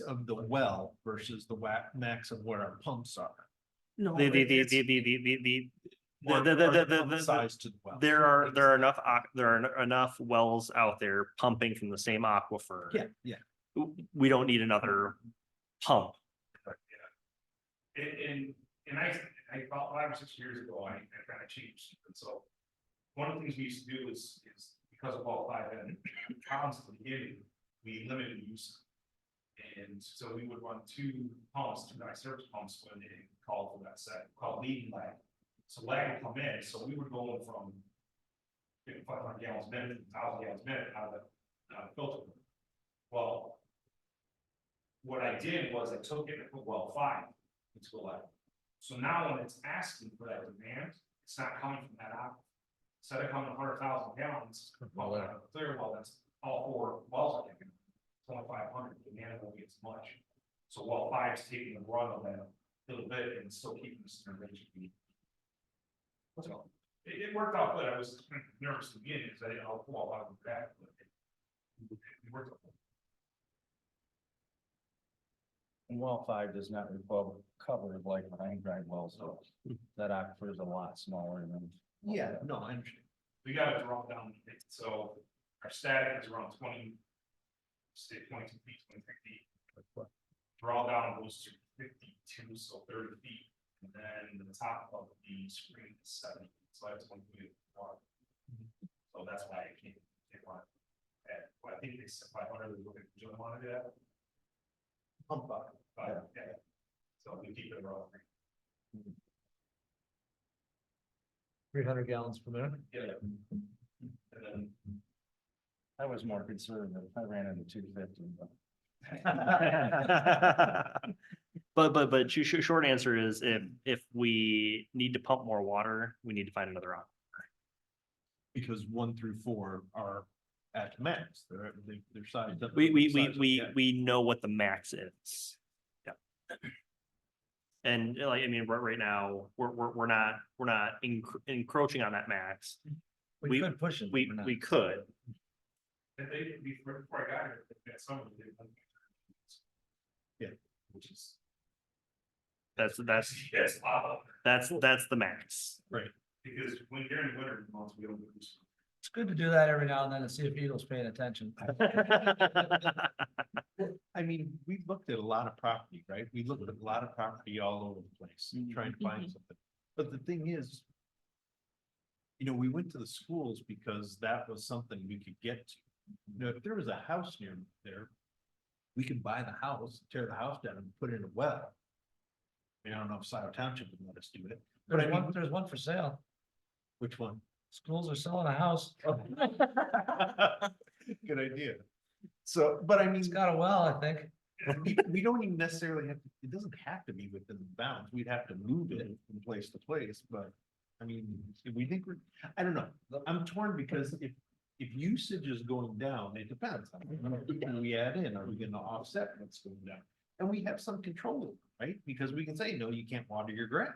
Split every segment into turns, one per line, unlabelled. of the well versus the wa- max of where our pumps are.
No.
The, the,
it-
the,
it's-
the, the, the, the, the,
or-
The- the- the-
or
the-
pump
the- the-
Size to the well.
there are, there are enough, aqu- there are en- enough wells out there pumping from the same aquifer.
Yeah, yeah.
W- We don't need another pump.
And, and, and I, I about five or six years ago, I, I kind of changed, and so. One of the things we used to do is, is because of all five and pounds at the beginning, we limited use. And so we would run two pumps, two night service pumps when they called for that set, called leading lag. So lag would come in, so we were going from. Five hundred gallons a minute, thousand gallons a minute out of the, out of the filter. Well. What I did was I took it and put well five into eleven. So now when it's asking for that demand, it's not coming from that aquifer. Instead of coming hundred thousand gallons, well, out of the clear well, that's all four wells are taking. Twenty five hundred, demand won't be as much. So well five is taking the run of that little bit and still keeping us in the range. we need. So it, it worked out good. I was nervous to begin because I didn't know how I would react, but it- it worked out.
And well five does not recover, cover like line drive wells, so that aquifer is a lot smaller than.
Yeah, no, I understand.
we gotta drop down, it, so our static is around twenty. Say twenty-two feet, twenty-three feet. Draw down goes to fifty-two, so thirty feet, and then the top of the screen is seven, so that's one feet of water. So that's why I can't, they want. And, well, I think they said five hundred, they're looking, do you want to do that? Pump up, but, yeah, so we keep it around.
Three hundred gallons per minute?
Yeah. And then
I was more conservative, I ran into two fifty, but.
But, but, but sh- sh- short answer is if, if we need to pump more water, we need to find another aquifer.
Because one through four are at max, they're, at- they- they're sized up.
We, we,
size
we,
of-
we,
yeah.
we know what the max is. Yeah. And uh, like, I mean, right, right now, we're, we're, we're not, we're not encro- encroaching on that max. we-
could push it,
We,
we're not.
we could.
And they, before, before I got here, they had some of them. did one-
Yeah.
Which is,
That's, that's,
yes, wow,
that's, that's the max.
because when during the winter months, we don't lose.
It's good to do that every now and then to see if Eagle's paying attention.
I mean, we looked at a lot of property, right? We looked at a lot of property all over the place, trying to find something. But the thing is. You know, we went to the schools because that was something we could get to. You know, if there was a house near there. We could buy the house, tear the house down and put in a well. I mean, I don't know if Scioto Township would let us do it, but I
There's
mean,
one, there's one for sale,
which one?
schools are selling a house,
Good idea. So, but I mean.
he's got a well, I think.
we, we don't even necessarily have, to. it doesn't have to be within the bounds, we'd have to move it from place to place, but. I mean, if we think we're, I don't know, I'm torn because if, if usage is going down, it depends. on what do We add in, are we gonna offset what's going down? And we have some control, right? Because we can say, no, you can't water your grass.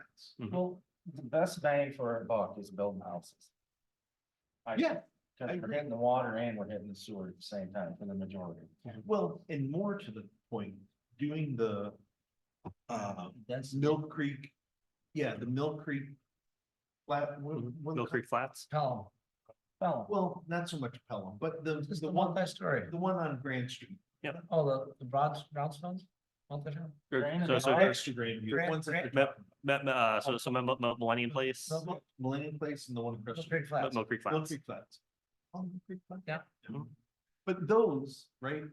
Well, the best bang for our buck is building houses. I-
Yeah, I
Cause we're
agree.
hitting the water and we're hitting the sewer at the same time for the majority.
well, and more to the point, doing the. Um,
Uh, That's
Mill Creek, yeah, the Mill Creek. Flat, one, one.
Mill Creek Flats.
Pelham. Pelham,
Well, not so much Pelham, but the,
just
the
the
one,
multi-story.
the one on Grand Street.
Oh, the, the bronze, brownstones? Multi-town?
Or-
Grand
So,
and
so,
Oh, Grand-
there's-
to Grandview, the
Grand-
ones that
Grand-
they're-
me- me- uh, so, so Mil- Mil- Millennium Place,
Mil-
Mil- Millennium Place and the one across.
Those
the-
big flats.
Mill Creek
Mill
Flats.
Creek Flats. Oh, Mill Creek Flats? Mm-hmm.
Yeah.
Mhm.
But those, right?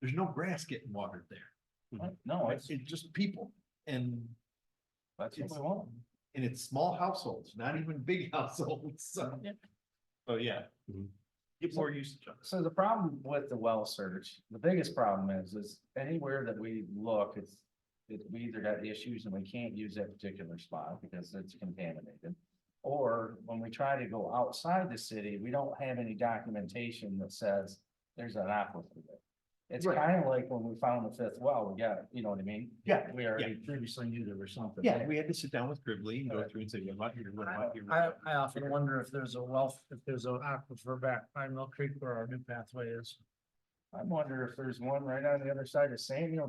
There's no grass getting watered there.
No, it's,
It's it's just people and,
that's
it's-
what we want.
and it's small households, not even big households, so.
Yeah.
Oh, yeah.
Mhm.
Get more usage on this.
So the problem with the well search, the biggest problem is, is anywhere that we look, it's. It, we either got issues and we can't use that particular spot because it's contaminated. Or when we try to go outside the city, we don't have any documentation that says there's an aquifer there. It's
Right.
kind of like when we found the fifth well, we got, you know what I mean?
Yeah,
We already previously knew there was something.
Yeah,
there.
we had to sit down with Gribbley and go
Alright.
through and say, what about here, what about here? what
I,
about
I often
here?"
wonder if there's a wealth, if there's an aquifer back by Mill Creek where our new pathway is.
I wonder if there's one right on the other side of Samuel